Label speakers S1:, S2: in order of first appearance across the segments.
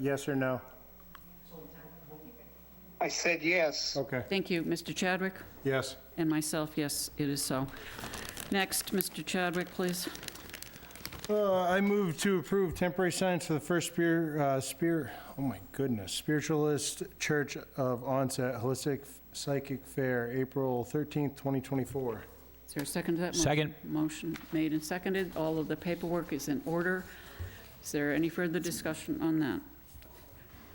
S1: Yes or no?
S2: I said yes.
S1: Okay,
S3: Thank you, Mr. Chadwick,
S1: yes.
S3: and myself, yes, it is so. Next, Mr. Chadwick, please.
S1: Uh, I move to approve temporary signs for the First Spear, uh, Spear, oh my goodness, Spiritualist Church of Onset Holistic Psychic Fair, April 13th, 2024.
S3: Is there a second to that? motion?
S4: Second.
S3: Motion made and seconded. All of the paperwork is in order. Is there any further discussion on that?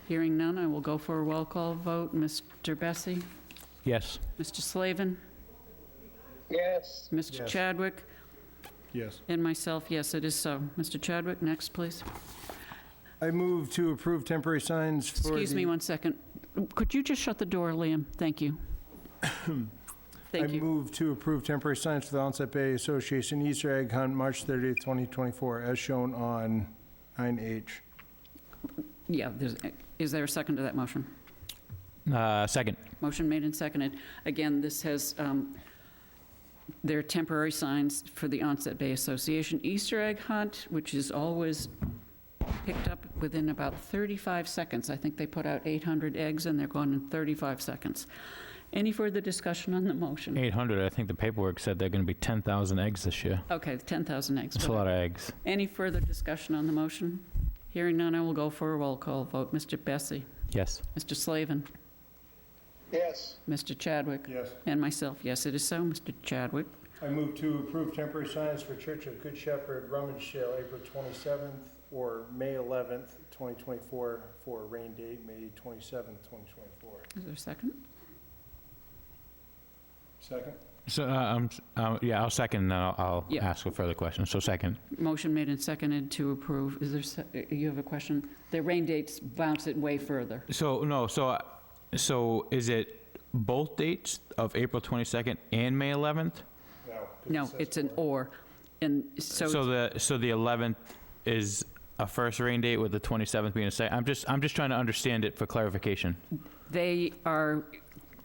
S3: Hearing none, I will go for a roll call vote. Mr. Bessie?
S4: Yes.
S3: Mr. Slavin?
S2: Yes.
S3: Mr.
S1: Yes.
S3: Chadwick?
S1: Yes.
S3: And myself, yes, it is so. Mr. Chadwick, next, please.
S1: I move to approve temporary signs for the...
S3: Excuse me one second. Could you just shut the door, Liam? Thank you. Thank
S1: I
S3: you.
S1: move to approve temporary signs for the Onset Bay Association Easter Egg Hunt, March 30th, 2024, as shown on 9H.
S3: Yeah, there's- is there a second to that motion?
S4: Uh, Second.
S3: Motion made and seconded. Again, this has, um, there are temporary signs for the Onset Bay Association Easter egg hunt, which is always picked up within about 35 seconds. I think they put out 800 eggs and they're gone in 35 seconds. Any further discussion on the motion?
S4: 800, I think the paperwork said they're going to be 10,000 eggs this year.
S3: Okay, 10,000 eggs.
S4: That's a lot of eggs.
S3: Any further discussion on the motion? Hearing none, I will go for a roll call vote. Mr. Bessie?
S4: Yes.
S3: Mr. Slavin?
S2: Yes.
S3: Mr. Chadwick?
S1: Yes.
S3: And myself, yes, it is so, Mr. Chadwick.
S1: I move to approve temporary signs for Church of Good Shepherd rummage sale April 27th or May 11th, 2024, for a rain date, May 27th, 2024.
S3: Is there a second?
S1: Second?
S4: So, uh, um, s- uh, yeah, I'll second, and I'll- I'll
S3: Yeah.
S4: ask for further questions. So second.
S3: Motion made and seconded to approve. Is there, se- uh, you have a question? The rain dates bounce it way further.
S4: So, no, so, uh, so is it both dates of April 22nd and May 11th?
S1: No. 'cause
S3: No,
S1: it says
S3: it's an
S1: four.
S3: or. And so,
S4: So the, so the 11th is a first rain date with the 27th being a second? I'm just, I'm just trying to understand it for clarification.
S3: they are,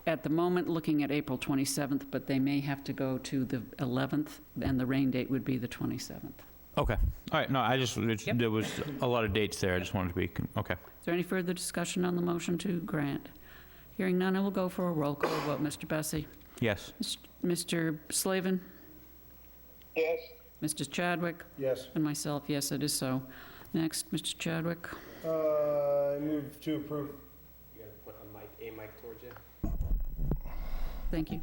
S3: at the moment, looking at April 27th, but they may have to go to the 11th, and the rain date would be the 27th.
S4: Okay. All right, no, I just, it's-
S3: Yep.
S4: there was a lot of dates there. I just wanted to be, con- okay.
S3: Is there any further discussion on the motion to grant? Hearing none, I will go for a roll call vote. Mr. Bessie?
S4: Yes.
S3: Mis- Mr. Slavin?
S2: Yes.
S3: Mr. Chadwick?
S1: Yes.
S3: And myself, yes, it is so. Next, Mr. Chadwick.
S1: Uh, I move to approve,
S5: You gotta put a mic, a mic towards you.
S3: Thank you.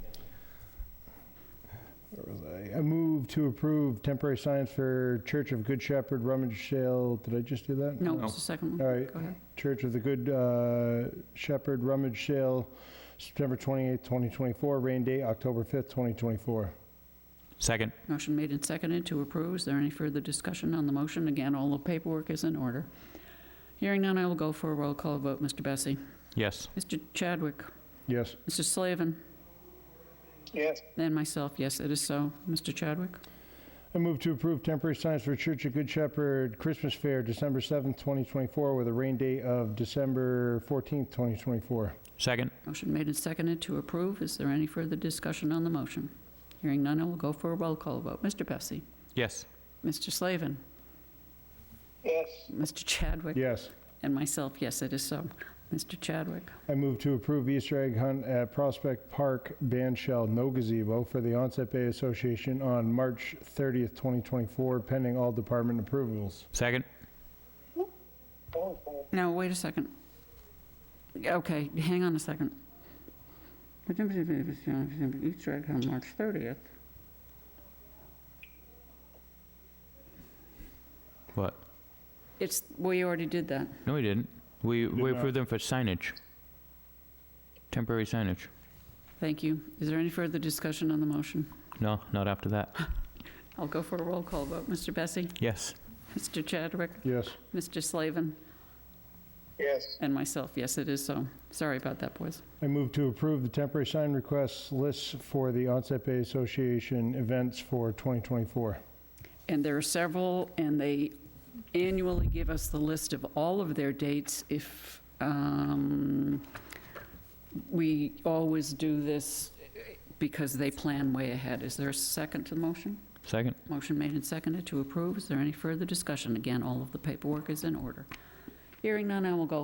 S1: where was I? I move to approve temporary signs for Church of Good Shepherd rummage sale. Did I just do that?
S3: No,
S4: No.
S3: it's the second
S1: All
S3: one.
S1: right.
S3: Go ahead.
S1: Church of the Good uh, Shepherd Rummage Sale, September 28th, 2024, rain date, October 5th, 2024.
S4: Second.
S3: Motion made and seconded to approve. Is there any further discussion on the motion? Again, all the paperwork is in order. Hearing none, I will go for a roll call vote. Mr. Bessie?
S4: Yes.
S3: Mr. Chadwick?
S1: Yes.
S3: Mr. Slavin?
S2: Yes.
S3: And myself, yes, it is so. Mr. Chadwick?
S1: I move to approve temporary signs for Church of Good Shepherd Christmas Fair, December 7th, 2024, with a rain date of December 14th, 2024.
S4: Second.
S3: Motion made and seconded to approve. Is there any further discussion on the motion? Hearing none, I will go for a roll call vote. Mr. Bessie?
S4: Yes.
S3: Mr. Slavin?
S2: Yes.
S3: Mr. Chadwick?
S1: Yes.
S3: And myself, yes, it is so. Mr. Chadwick?
S1: I move to approve Easter egg hunt at Prospect Park Band Shell, no gazebo, for the Onset Bay Association on March 30th, 2024, pending all department approvals.
S4: Second.
S2: Okay.
S3: No, wait a second. Okay, hang on a second. Easter egg on March 30th.
S4: What?
S3: It's, we already did that.
S4: No, we didn't. We,
S1: did
S4: we
S1: not.
S4: approved them for signage. Temporary signage.
S3: Thank you. Is there any further discussion on the motion?
S4: No, not after that.
S3: I'll go for a roll call vote. Mr. Bessie?
S4: Yes.
S3: Mr. Chadwick?
S1: Yes.
S3: Mr. Slavin?
S2: Yes.
S3: And myself, yes, it is so. Sorry about that, boys.
S1: I move to approve the temporary sign requests lists for the Onset Bay Association events for 2024.
S3: And there are several, and they annually give us the list of all of their dates. If, um, we always do this because they plan way ahead. Is there a second to the motion?
S4: Second.
S3: Motion made and seconded to approve. Is there any further discussion? Again, all of the paperwork is in order. Hearing none, I will go